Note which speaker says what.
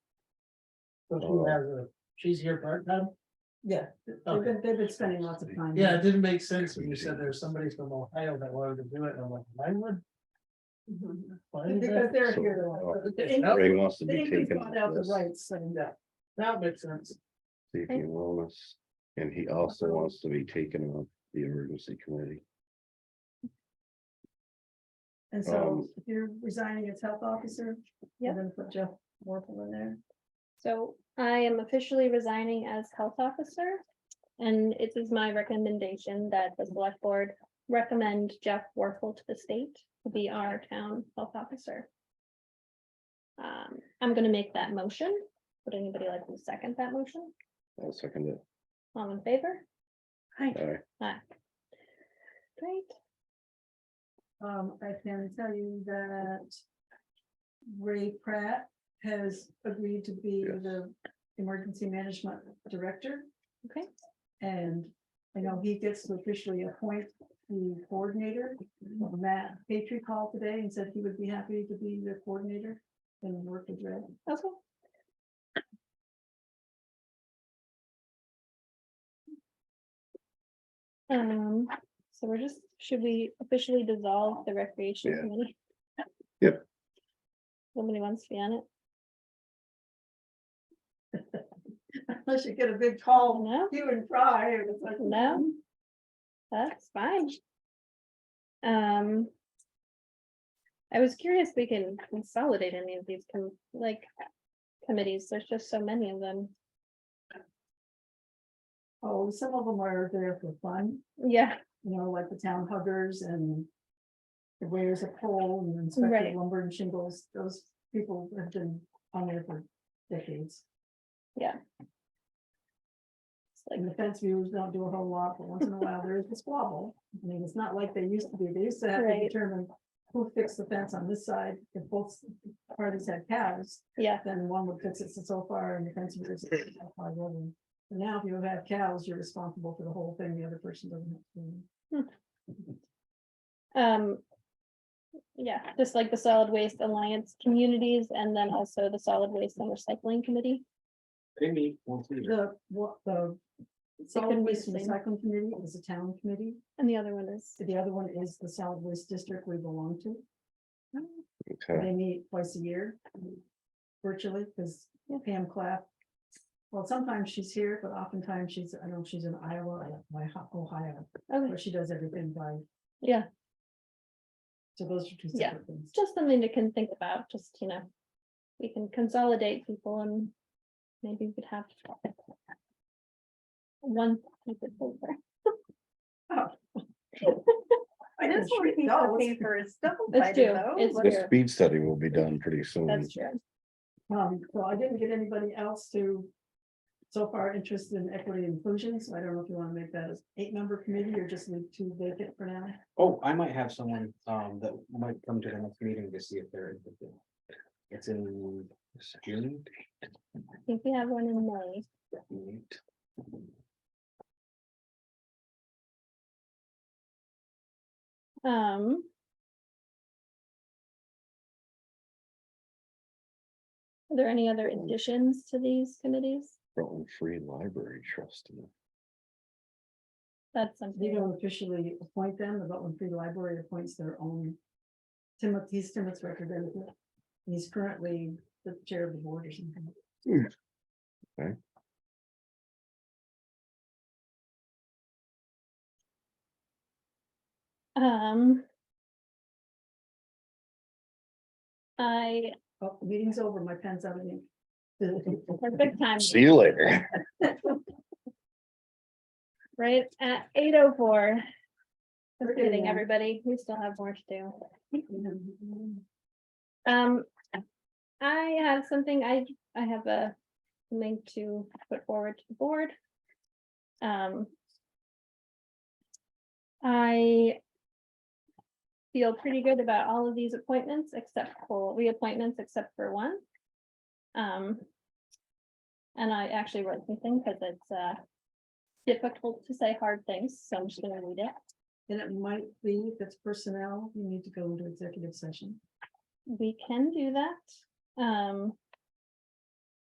Speaker 1: So
Speaker 2: Oh.
Speaker 1: she has a, she's here part time?
Speaker 3: Yeah, they've
Speaker 1: Okay,
Speaker 3: been, they've been spending lots of time.
Speaker 1: yeah, it didn't make sense when you said there's somebody from Ohio that wanted to do it, and I'm like, why would?
Speaker 3: Mhm.
Speaker 1: why is
Speaker 3: Because
Speaker 1: that?
Speaker 3: they're here.
Speaker 2: Oh,
Speaker 3: the- the
Speaker 1: Yep.
Speaker 3: Inc-
Speaker 4: Ray wants to
Speaker 3: The
Speaker 4: be
Speaker 3: Inc.
Speaker 4: taken.
Speaker 3: bought out
Speaker 4: off
Speaker 3: the
Speaker 4: this,
Speaker 3: rights and, uh,
Speaker 1: That makes sense.
Speaker 4: Safety and wellness, and he also wants to be taken off the emergency committee.
Speaker 3: and so
Speaker 4: Um,
Speaker 3: if you're resigning as health officer, you're
Speaker 5: Yep.
Speaker 3: gonna put Jeff Warple in there.
Speaker 5: So I am officially resigning as health officer. And it is my recommendation that the select board recommend Jeff Warfel to the state to be our town health officer. Um, I'm gonna make that motion. Would anybody like to second that motion?
Speaker 4: I'll second it.
Speaker 5: All in favor?
Speaker 4: All right,
Speaker 5: Aye. Great.
Speaker 3: Um, I can tell you that Ray Pratt has agreed to be
Speaker 4: Yes.
Speaker 3: the emergency management director.
Speaker 5: Okay.
Speaker 3: And I know he gets to officially appoint the coordinator. Matt Patry called today and said he would be happy to be the coordinator and work with Ray.
Speaker 5: Okay. Um, so we're just, should we officially dissolve the recreation
Speaker 4: Yeah.
Speaker 5: committee?
Speaker 4: Yep.
Speaker 5: Nobody wants to be on it,
Speaker 3: Unless you get a big call,
Speaker 5: no,
Speaker 3: you and Fry, and it's like.
Speaker 5: no. That's fine. Um. I was curious, if we can consolidate any of these, com- like, committees, there's just so many of them,
Speaker 3: Oh, some of them are there for fun.
Speaker 5: yeah.
Speaker 3: you know, like the town huggers and the wears a pole and inspector
Speaker 5: Right.
Speaker 3: lumber and shingles, those people have been on there for decades.
Speaker 5: It's like,
Speaker 3: And the fence viewers don't do a whole lot, but once in a while there is a squabble. I mean, it's not like they used to be. They used to have to
Speaker 5: Right.
Speaker 3: determine who fixed the fence on this side. If both parties had cows,
Speaker 5: yeah,
Speaker 3: then one would fix it so far and the fence viewers. But Now, if you have cows, you're responsible for the whole thing. The other person doesn't. have to.
Speaker 5: Um. Yeah, just like the Solid Waste Alliance Communities and then also the Solid Waste and Recycling Committee.
Speaker 2: They meet once a year.
Speaker 3: The, what, the. Solid
Speaker 5: couldn't be
Speaker 3: waste
Speaker 5: the same.
Speaker 3: recycling committee is a town committee,
Speaker 5: And the other one is,
Speaker 3: so the other one is the solid waste district we belong to,
Speaker 4: okay,
Speaker 3: they meet twice a year. Virtually, because Pam Clapp. Well, sometimes she's here, but oftentimes she's, I don't know, if she's in Iowa, or my Ho- Ohio,
Speaker 5: okay,
Speaker 3: where she does everything by,
Speaker 5: yeah,
Speaker 3: so those are two
Speaker 5: Yeah.
Speaker 3: separate things.
Speaker 5: it's just something to can think about, just, you know. We can consolidate people and maybe we could have. One. stupid folder.
Speaker 3: I think she- no, it's-
Speaker 5: It's true, it's
Speaker 4: the
Speaker 5: true,
Speaker 4: speed study will be done pretty soon.
Speaker 5: that's true,
Speaker 3: Um, well, I didn't get anybody else to. So far, interested in equity and inclusion, so I don't know if you want to make that as eight member committee or just leave two vacant for now.
Speaker 2: Oh, I might have someone um that might come to the next meeting to see if they're. interested. It's in June.
Speaker 5: I think we have one in May,
Speaker 2: Meet.
Speaker 5: um. Are there any other additions to these committees?
Speaker 4: Rutland Free Library Trust. you know.
Speaker 5: That's
Speaker 3: You
Speaker 5: something,
Speaker 3: don't officially appoint them, the Rutland Free Library appoints their own. Timothy, he's Timoth's representative. and He's currently the chair of the board or something.
Speaker 5: um. I,
Speaker 3: Oh, the meeting's over, my pen's out of ink.
Speaker 5: perfect time,
Speaker 4: See you later.
Speaker 5: right at eight oh four.
Speaker 3: We're
Speaker 5: Just
Speaker 3: getting
Speaker 5: kidding,
Speaker 3: there.
Speaker 5: everybody, we still have more to do. Um, I have something, I, I have a link to put forward to the board. Um. I. Feel pretty good about all of these appointments except for reappointments except for one. Um. And I actually wrote something because it's, uh. Difficult to say hard things, so I'm just gonna read it.
Speaker 3: And it might be, if it's personnel, you need to go into executive session.
Speaker 5: We can do that. Um.